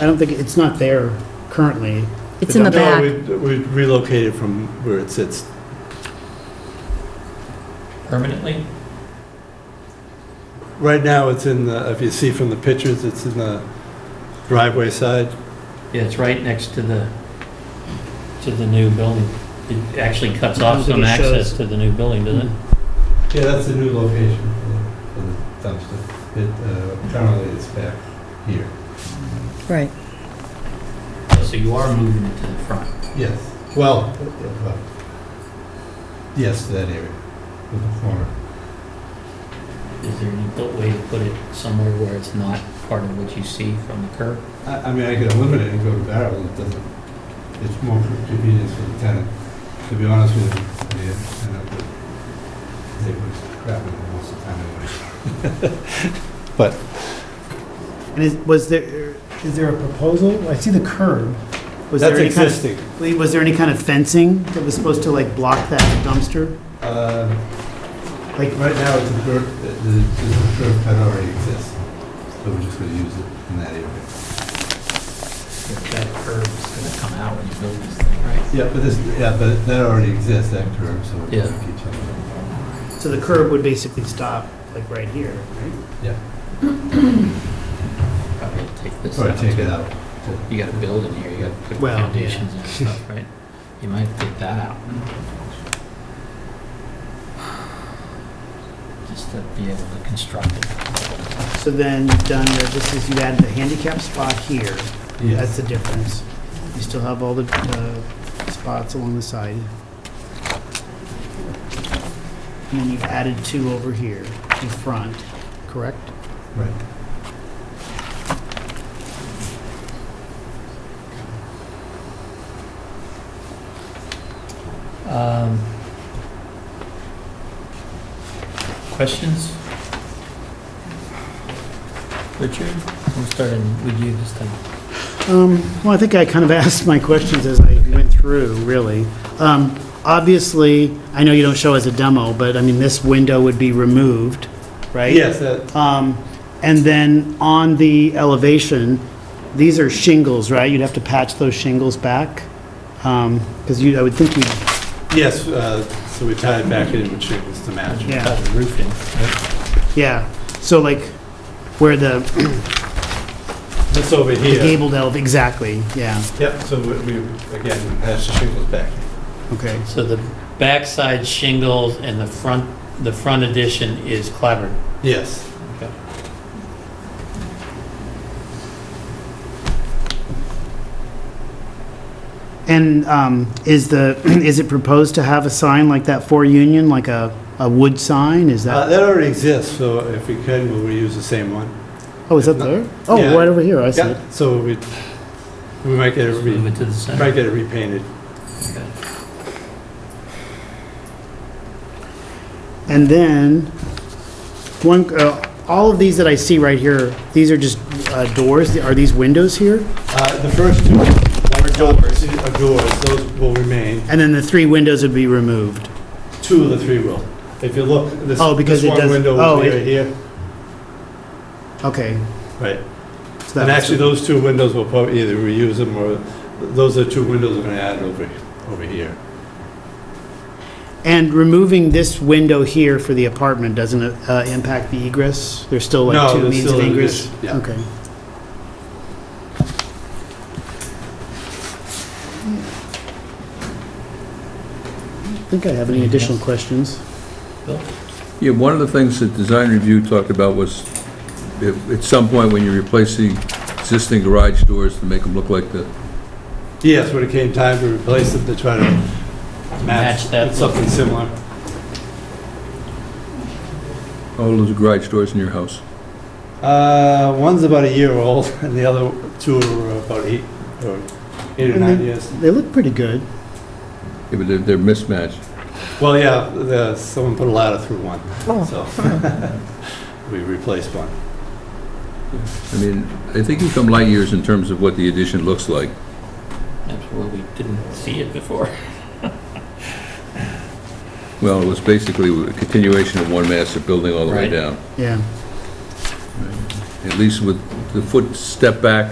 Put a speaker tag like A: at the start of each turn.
A: I don't think, it's not there currently.
B: It's in the
C: No,
B: back.
C: we- We relocated from where it sits.
D: permanently?
C: Right now, it's in the, if you see from the pictures, it's in the driveway side.
D: Yeah, it's right next to the, to the new building. It actually cuts off some
A: It shows.
D: access to the new building, doesn't it?
C: Yeah, that's the new location for the- for the dumpster. It, uh, Currently, it's back here.
B: Right.
D: Mm-hmm. So you are moving it to the front.
C: Yes, well, uh, uh, yes, that area, with the corner.
D: Is there any bu- way to put it somewhere where it's not part of what you see from the curb?
C: I, I mean, I could eliminate it and go to barrel, it doesn't, it's more for convenience for the tenant, to be honest with you. I mean, I know that They were crapping most of the time anyway.
A: And is, was there, is there a proposal? I see the curb. Was there
C: That's
A: any kind
C: existing.
A: of, was there any kind of fencing that was supposed to like block that dumpster?
C: Uh,
A: Like,
C: Right now, it's a curb, the, the the curb cut already exists, so we're just gonna use it in that area.
D: If That curb's gonna come out when you build this thing, right?
C: Yeah, but this, yeah, but that already exists, that curb, so we're gonna
D: Yeah.
C: keep it.
A: so the curb would basically stop like right here, right?
D: Probably take this
C: Or
D: out.
C: take it out.
D: You gotta build in here, you gotta put
A: Well, yeah.
D: foundations and stuff, right? You might take that out. Just to be able to construct it.
A: So then, done, there, this is, you add the handicap spot here. That's
C: Yes,
A: the difference. You still have all the uh, spots along the side. And then you've added two over here in front, correct?
C: right.
D: Um, Questions? Richard, I'm starting with you this time.
A: Um, Well, I think I kind of asked my questions as I went through, really. Um, Obviously, I know you don't show as a demo, but I mean, this window would be removed, right?
C: Yes, that,
A: Um, And then on the elevation, these are shingles, right? You'd have to patch those shingles back? Because you, I would think you,
C: yes, uh, so we tie it back in with shingles to match.
A: Yeah.
D: Got the roof in, right?
A: yeah. So like where the
C: That's over
A: the
C: here.
A: gabled elevation, exactly, yeah,
C: Yep, so we, we- again, patch the shingles back.
A: okay.
D: So the backside shingles and the front, the front addition is clavered.
C: Yes.
A: And um, is the, is it proposed to have a sign like that for Union, like a, a wood sign? Is
C: Uh,
A: that,
C: That already exists, so if we can, we'll reuse the same one.
A: oh, is that there? Oh, right over here, I see it.
C: Yeah, so we, we might get it,
D: Just move
C: re-
D: it to the center.
C: might get it repainted.
D: Okay.
A: And then, one, uh, all of these that I see right here, these are just uh, doors, are these windows here?
C: Uh, The first two are doors, are doors, those will remain.
A: And then the three windows would be removed?
C: Two of the three will. If you look, this
A: Oh, because
C: this
A: it
C: one
A: does-
C: window
A: oh,
C: will be
A: it-
C: right here.
A: Okay.
C: Right.
A: so that
C: And
A: was-
C: actually, those two windows will probably either reuse them or, those are two windows we're going to add over, over here.
A: And removing this window here for the apartment doesn't uh, impact the egress? There's still like
C: No,
A: two
C: there's
A: means
C: still
A: of
C: an
A: egress?
C: addition, yeah.
A: Okay. I don't think I have any additional questions.
E: Yeah, one of the things that design review talked about was, if- at some point, when you replace the existing garage doors to make them look like the,
C: Yes, when it came time to replace them, to try to match
D: Match that
C: with something similar.
E: all those garage doors in your house.
C: Uh, One's about a year old, and the other two are about eight, or eight or
A: And
C: nine
A: they-
C: years.
A: They look pretty good.
E: Yeah, but they're- they're mismatched.
C: Well, yeah, the- someone put a ladder through one,
B: Oh.
C: so we replaced one.
E: I mean, I think you come light years in terms of what the addition looks like.
D: That's where we didn't see it before.
E: Well, it was basically a continuation of one master building all the way
D: Right.
E: down.
A: Yeah.
E: At least with the foot step back